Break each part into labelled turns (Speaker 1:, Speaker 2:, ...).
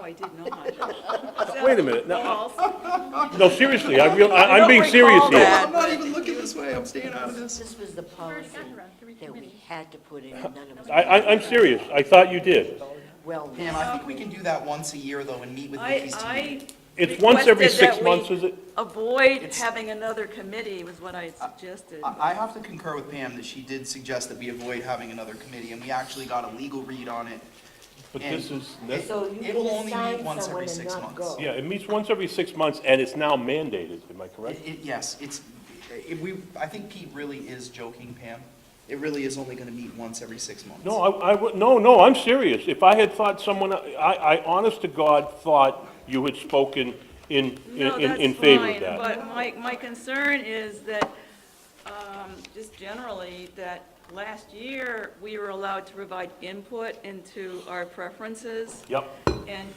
Speaker 1: I did not.
Speaker 2: Wait a minute, no,
Speaker 1: False.
Speaker 2: no, seriously, I real, I- I'm being
Speaker 1: recall
Speaker 2: serious here.
Speaker 1: that.
Speaker 3: I'm not even looking this way, I'm staying out of this.
Speaker 4: This was the policy that we had to put in, and none of us.
Speaker 2: I, I, I'm serious, I thought you did.
Speaker 4: Well,
Speaker 3: Pam, I think we can do that once a year, though, and meet with Nikki's team.
Speaker 1: I, I.
Speaker 2: It's once every
Speaker 1: requested
Speaker 2: six
Speaker 1: that we
Speaker 2: months, is it?
Speaker 1: Avoid having another committee was what I had suggested.
Speaker 3: I I have to concur with Pam that she did suggest that we avoid having another committee, and we actually got a legal read on it.
Speaker 2: But
Speaker 3: And
Speaker 2: this is,
Speaker 3: it-
Speaker 4: So you
Speaker 3: It will
Speaker 4: can
Speaker 3: only
Speaker 4: assign
Speaker 3: meet once
Speaker 4: someone
Speaker 3: every
Speaker 4: and
Speaker 3: six
Speaker 4: not
Speaker 3: months.
Speaker 4: go.
Speaker 2: yeah, it meets once every six months, and it's now mandated, am I correct?
Speaker 3: It- it- Yes, it's, it- we, I think Pete really is joking, Pam. It really is only gonna meet once every six months.
Speaker 2: No, I, I, would- no, no, I'm serious. If I had thought someone, I, I honest to God thought you had spoken in,
Speaker 1: No,
Speaker 2: in,
Speaker 1: that's
Speaker 2: in favor
Speaker 1: fine,
Speaker 2: of that.
Speaker 1: but my, my concern is that, um, just generally, that last year, we were allowed to provide input into our preferences.
Speaker 2: Yep,
Speaker 1: And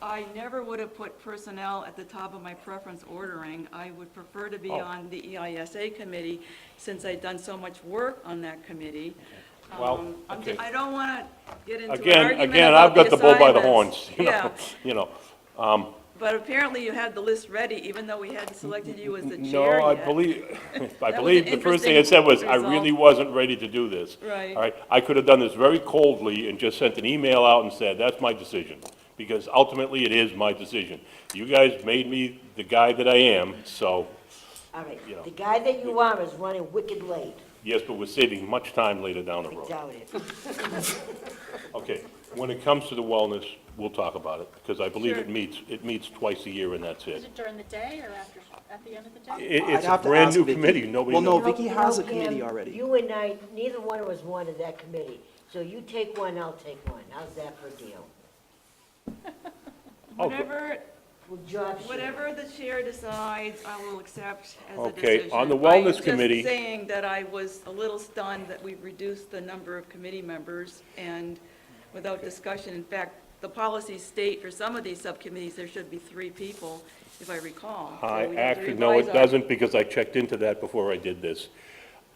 Speaker 1: I never would have put personnel at the top of my preference ordering. I would prefer to be
Speaker 2: Oh.
Speaker 1: on the E EISA committee, since I've done so much work on that committee.
Speaker 2: Well,
Speaker 1: Um, I'm
Speaker 2: okay.
Speaker 1: ju- I don't want to get into an
Speaker 2: again,
Speaker 1: argument
Speaker 2: again, I've
Speaker 1: about
Speaker 2: got
Speaker 1: the
Speaker 2: the bull by the
Speaker 1: assignments.
Speaker 2: horns, you know,
Speaker 1: Yeah,
Speaker 2: you know.
Speaker 1: but apparently you had the list ready, even though we hadn't selected you as the chair
Speaker 2: No, I
Speaker 1: yet.
Speaker 2: believe, I
Speaker 1: an
Speaker 2: believe the first thing it said was, I
Speaker 1: interesting
Speaker 2: really wasn't ready to do this.
Speaker 1: Right.
Speaker 2: All right, I could have done this very coldly and just sent an email out and said, that's my decision, because ultimately it is my decision. You guys made me the guy that I am, so,
Speaker 4: All right,
Speaker 2: You know.
Speaker 4: the guy that you are is running wicked late,
Speaker 2: yes, but we're saving much time later down the
Speaker 4: I
Speaker 2: road.
Speaker 4: doubt it.
Speaker 2: Okay, when it comes to the wellness, we'll talk about it, because I believe it
Speaker 1: Sure.
Speaker 2: meets, it meets twice a year and that's
Speaker 5: Is
Speaker 2: it.
Speaker 5: it during the day or after, at the end of the
Speaker 2: I-
Speaker 5: day?
Speaker 2: It's
Speaker 3: I'd
Speaker 2: a
Speaker 3: have to ask
Speaker 2: brand-new
Speaker 3: Vicky.
Speaker 2: committee, nobody
Speaker 3: Well, no,
Speaker 2: knows.
Speaker 3: Vicky has a
Speaker 4: No, Pam,
Speaker 3: committee already.
Speaker 4: You and I, neither one of us wanted that committee, so you take one, I'll take one, how's that for a deal?
Speaker 2: Oh,
Speaker 1: Whatever,
Speaker 4: We'll job share.
Speaker 1: whatever the chair decides, I will accept as a
Speaker 2: Okay,
Speaker 1: decision.
Speaker 2: on the
Speaker 1: I'm
Speaker 2: wellness committee-
Speaker 1: just saying that I was a little stunned that we reduced the number of committee members and without discussion. In fact, the policies state for some of these subcommittees, there should be three people, if I recall. So
Speaker 2: I
Speaker 1: we had to
Speaker 2: actually, no,
Speaker 1: revise
Speaker 2: it
Speaker 1: our-
Speaker 2: doesn't, because I checked into that before I did this.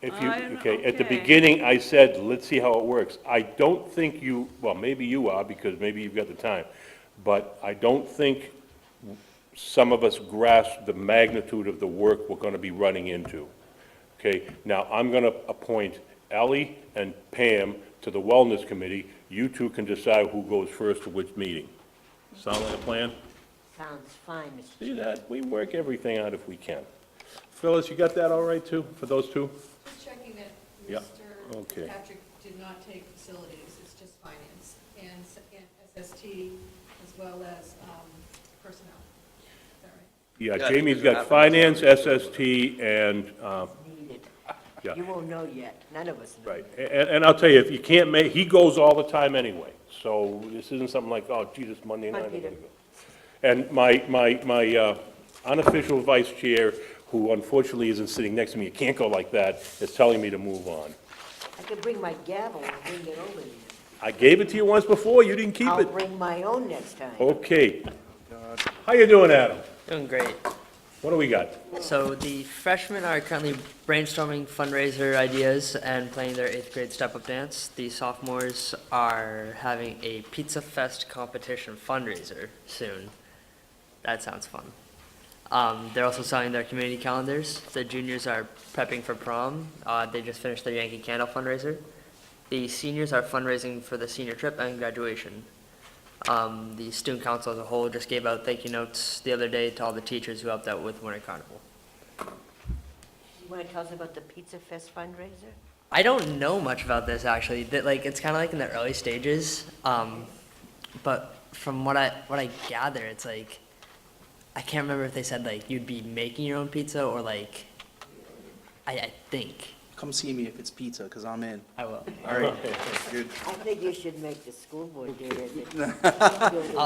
Speaker 2: If you,
Speaker 1: I'm-
Speaker 2: okay, at the
Speaker 1: okay.
Speaker 2: beginning, I said, let's see how it works. I don't think you, well, maybe you are, because maybe you've got the time, but I don't think some of us grasp the magnitude of the work we're gonna be running into. Okay, now, I'm gonna appoint Ally and Pam to the Wellness Committee. You two can decide who goes first to which meeting. Sound like a plan?
Speaker 4: Sounds fine, Mr.
Speaker 2: See that? We work everything out if we can. Phyllis, you got that all right too, for those two?
Speaker 6: Just checking that
Speaker 2: Yeah,
Speaker 6: Mr.
Speaker 2: okay.
Speaker 6: Patrick did not take facilities, it's just finance and s- and SST as well as um, personnel. Is that right?
Speaker 2: Yeah,
Speaker 7: Yeah,
Speaker 2: Jamie's
Speaker 7: because
Speaker 2: got
Speaker 7: it happens
Speaker 2: finance, SST, and, uh,
Speaker 4: Needed.
Speaker 2: Yeah.
Speaker 4: You won't know yet, none of us know.
Speaker 2: right, A- and, and I'll tell you, if you can't make, he goes all the time anyway, so this isn't something like, oh, gee, this Monday night. I'm
Speaker 4: Monday
Speaker 2: gonna
Speaker 4: night.
Speaker 2: go. And my, my, my uh, unofficial vice chair, who unfortunately isn't sitting next to me, you can't go like that, is telling me to move on.
Speaker 4: I could bring my gavel and bring it over there.
Speaker 2: I gave it to you once before, you didn't keep
Speaker 4: I'll
Speaker 2: it. Oh.
Speaker 4: bring my own next time.
Speaker 2: Okay. How you doing, Adam?
Speaker 8: Doing great.
Speaker 2: What do we got?
Speaker 8: So the freshmen are currently brainstorming fundraiser ideas and playing their eighth grade step up dance. The sophomores are having a pizza fest competition fundraiser soon. That sounds fun. Um, they're also selling their community calendars. The juniors are prepping for prom. Uh, they just finished their Yankee Candle fundraiser. The seniors are fundraising for the senior trip and graduation. Um, the student council as a whole just gave out thank you notes the other day to all the teachers who helped out with Winter Carnival.
Speaker 4: You wanna tell us about the Pizza Fest fundraiser?
Speaker 8: I don't know much about this actually. That like it's kind of like in the early stages, um, but from what I what I gather, it's like I can't remember if they said like you'd be making your own pizza or like I, I think
Speaker 3: Come see me if it's pizza, because I'm in.
Speaker 8: I will.
Speaker 3: All right. Good.
Speaker 4: I think you should make the school board do it.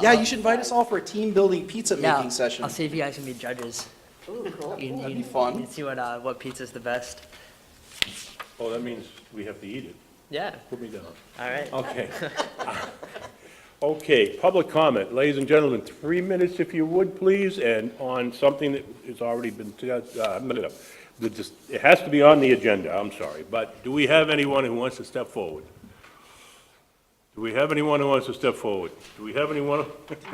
Speaker 3: Yeah, you should invite us all for a team-building
Speaker 8: Yeah,
Speaker 3: pizza-making session.
Speaker 8: I'll see if you guys can be judges.
Speaker 4: Ooh, cool.
Speaker 8: You,
Speaker 3: That'd
Speaker 8: you-
Speaker 3: be fun.
Speaker 8: You can see what uh, what pizza's the best.
Speaker 2: Oh, that means we have to eat it.
Speaker 8: Yeah.
Speaker 2: Put me down.
Speaker 8: All right.
Speaker 2: Okay. Okay, public comment. Ladies and gentlemen, three minutes if you would, please, and on something that has already been, uh, no, no, no. That just- it has to be on the agenda, I'm sorry, but do we have anyone who wants to step forward? Do we have anyone who wants to step forward? Do we have anyone?